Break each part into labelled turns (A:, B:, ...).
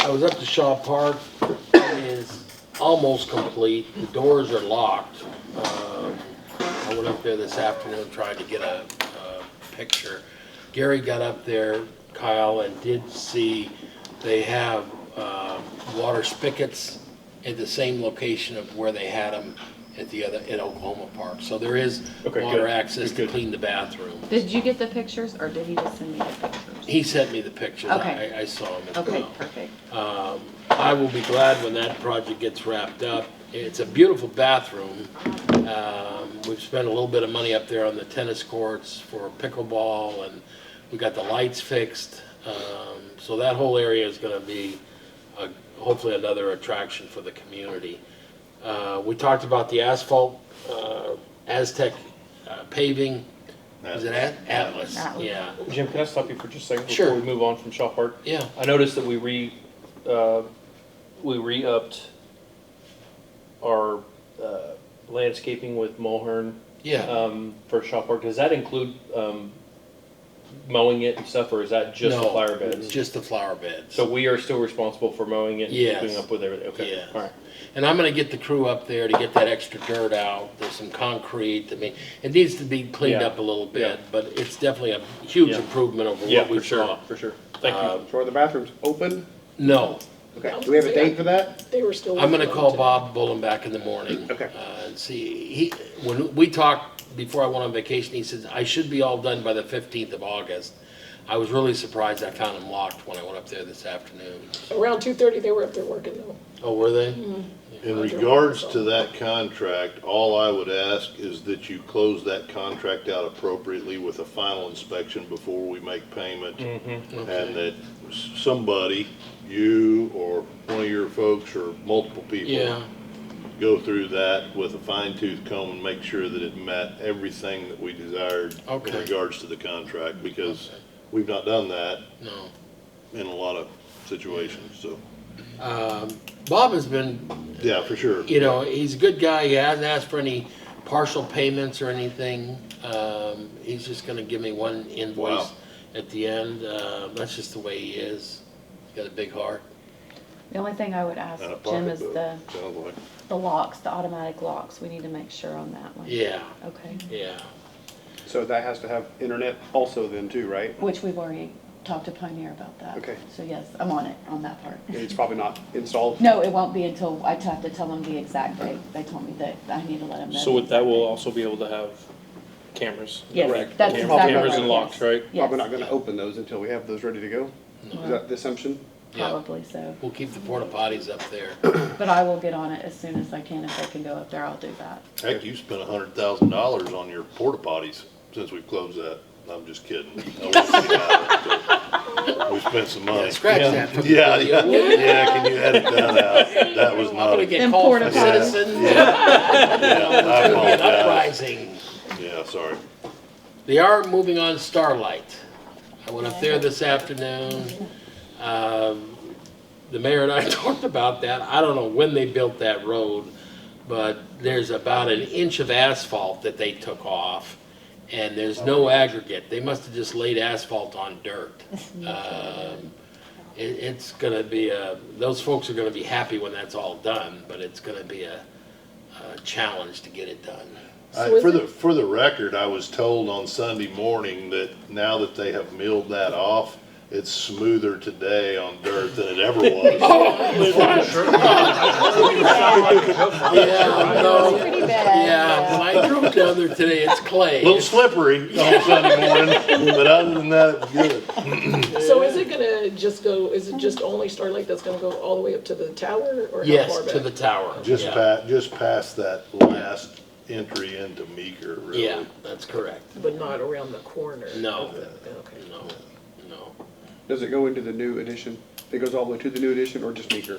A: I was up to Shaw Park, it is almost complete, the doors are locked. Um, I went up there this afternoon, tried to get a, a picture. Gary got up there, Kyle, and did see they have, uh, water spigots at the same location of where they had them at the other, at Oklahoma Park. So there is
B: Okay,
A: water
B: good,
A: access to
B: good, good.
A: clean the bathroom.
C: Did you get the pictures or did he just send me the pictures?
A: He sent me the pictures,
C: Okay.
A: I, I saw them as well.
C: Okay, perfect.
A: Um, I will be glad when that project gets wrapped up. It's a beautiful bathroom. Um, We've spent a little bit of money up there on the tennis courts for pickleball, and we got the lights fixed. Um, So that whole area is going to be uh, hopefully another attraction for the community. Uh, We talked about the asphalt, uh, Aztec uh, paving. Is it At- Atlas?
C: Atlas.
A: Yeah,
B: Jim, can I stop you for just a second
A: Sure.
B: before we move on from Shaw Park?
A: yeah.
B: I noticed that we re, uh, we re-upped our uh, landscaping with Mulhern
A: Yeah.
B: um, for Shaw Park. Does that include um, mowing it and stuff, or is that just the
A: No,
B: flower beds?
A: Just the flower beds.
B: So we are still responsible for mowing it and
A: Yes.
B: keeping up with everything? Okay,
A: Yes.
B: all right.
A: And I'm gonna get the crew up there to get that extra dirt out, there's some concrete, I mean, it needs to be cleaned
B: Yeah.
A: up a little
B: Yeah.
A: bit, but it's definitely a huge
B: Yeah.
A: improvement over
B: Yeah,
A: what we
B: for
A: saw.
B: sure, for sure. Thank you.
A: Um,
D: So are the bathrooms open?
A: No,
D: Okay, do we have a date for that?
E: They were still.
A: I'm gonna
E: working on
A: call
E: it.
A: Bob Bullen back in the morning.
D: Okay.
A: Uh, and see, he, when we talked before I went on vacation, he says, I should be all done by the fifteenth of August. I was really surprised I found them locked when I went up there this afternoon.
E: Around two thirty, they were up there working though.
A: Oh, were they?
F: In regards to that contract, all I would ask is that you close that contract out appropriately with a final inspection before we make payment.
A: Mm-hmm.
F: And that s- somebody, you or one of your folks or multiple people.
A: Yeah,
F: Go through that with a fine tooth comb and make sure that it met everything that we desired.
A: Okay.
F: In regards to the contract, because we've not done that
A: no.
F: in a lot of situations, so,
A: Bob has been
F: yeah, for sure.
A: you know, he's a good guy. He hasn't asked for any partial payments or anything. Um, he's just gonna give me one invoice
F: Wow.
A: at the end. Uh, that's just the way he is. He's got a big heart.
C: The only thing I would ask
F: Out of
C: Jim is
F: pocketbook,
C: the,
F: Uh, Sounds like.
C: the locks, the automatic locks. We need to make sure on that one.
A: Yeah,
C: Okay,
A: yeah.
D: So that has to have internet also then too, right?
C: which we've already talked to Pioneer about that.
D: Okay.
C: So yes, I'm on it, on that part.
D: It's probably not installed.
C: No, it won't be until, I have to tell them the exact date. They told me that I need to let them know.
B: So with
C: the
B: that,
C: exact
B: we'll
C: date.
B: also be able to have cameras.
C: Yes,
D: correct.
C: that's
D: Cam-
C: exactly right.
B: cameras and locks,
C: yes.
B: right?
D: Probably not
C: Yes,
D: gonna open those until we have those ready to go. Is that the assumption?
A: Yeah.
C: probably so.
A: We'll keep the porta potties up there.
C: But I will get on it as soon as I can. If they can go up there, I'll do that.
F: Heck, you spent a hundred thousand dollars on your porta potties since we closed that. I'm just kidding. I wouldn't say that, but We spent some money.
A: Scratch that. from the
F: Yeah, yeah,
A: video.
F: yeah, can you edit that out? That was
A: I'm
F: not,
A: gonna
F: a-
A: get
C: Them
A: called from
C: porta potties.
A: citizens.
F: yeah, I
A: There'll be an
F: apologize.
A: uprising.
F: Yeah, sorry.
A: They are moving on Starlight. I went up there this afternoon. Um, The mayor and I talked about that. I don't know when they built that road, but there's about an inch of asphalt that they took off, and there's no aggregate. They must have just laid asphalt on dirt. Um, It, it's gonna be a, those folks are gonna be happy when that's all done, but it's gonna be a, a challenge to get it done.
E: So
F: I-
E: is
F: For
E: it-
F: the, for the record, I was told on Sunday morning that now that they have milled that off, it's smoother today on dirt than it ever was.
A: Yeah, no.
C: Pretty bad.
A: Oh. Yeah, when I drove down there today, it's clay.
F: A little slippery on Sunday morning, but other than that, it was good.
E: So is it gonna just go, is it just only Starlight that's gonna go all the way up to the tower or how
A: Yes,
E: far back?
A: to the tower.
F: Just
A: Yeah.
F: pa, just past that last entry into Meeker, really.
A: Yeah, that's correct.
E: But not around the corner?
A: No.
E: of the- Okay.
A: No, no.
D: Does it go into the new addition? It goes all the way to the new addition or just meeker?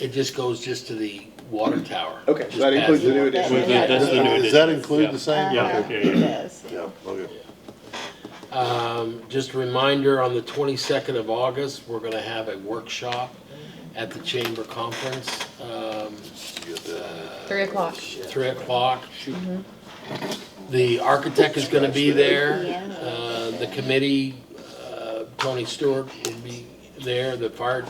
A: It just goes just to the water tower.
D: Okay, so
A: Just
D: that includes
A: past
D: the new addition.
B: That- that's the new
F: Does that
B: addition.
F: include
B: Yeah.
F: the same?
B: Yeah, okay, yeah.
C: Yes.
F: Yeah, okay.
A: Um, Just a reminder, on the 22nd of August, we're going to have a workshop at the Chamber Conference, um,
F: You get that.
C: Three o'clock.
A: 3 o'clock. The architect is going to be there. Uh, The committee, uh, Tony Stewart will be there, the fire